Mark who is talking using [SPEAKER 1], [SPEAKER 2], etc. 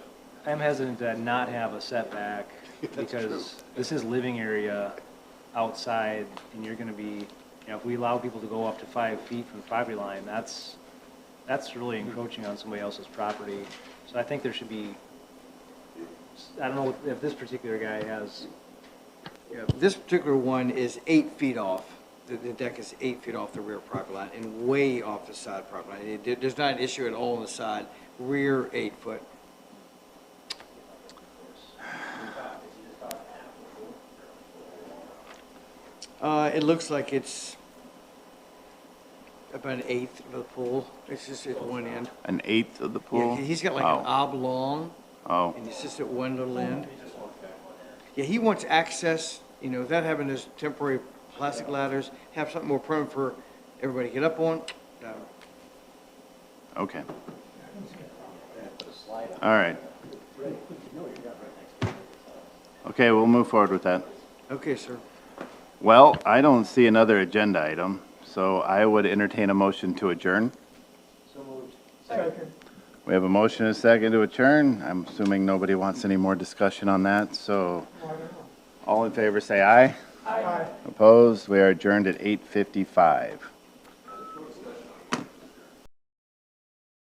[SPEAKER 1] I'm hesitant to not have a setback because this is living area outside and you're gonna be, you know, if we allow people to go up to five feet from the property line, that's, that's really encroaching on somebody else's property. So I think there should be, I don't know if this particular guy has,
[SPEAKER 2] Yeah, This particular one is eight feet off, the, the deck is eight feet off the rear property line and way off the side property line. It- There's not an issue at all on the side, rear eight foot. Uh, it looks like it's about an eighth of the pool, it's just at one end.
[SPEAKER 3] An eighth of the
[SPEAKER 2] Yeah,
[SPEAKER 3] pool?
[SPEAKER 2] he's got like an oblong.
[SPEAKER 3] Oh,
[SPEAKER 2] And it's just at one little end. Yeah, he wants access, you know, without having those temporary plastic ladders, have something more permanent for everybody to get up on. Uh,
[SPEAKER 3] oh, okay. All right. Okay, we'll move forward with that.
[SPEAKER 2] Okay, sir.
[SPEAKER 3] Well, I don't see another agenda item, so I would entertain a motion to adjourn. We have a motion and a second to adjourn. I'm assuming nobody wants any more discussion on that, so all in favor, say aye. Aye. Opposed? We are adjourned at 8:55.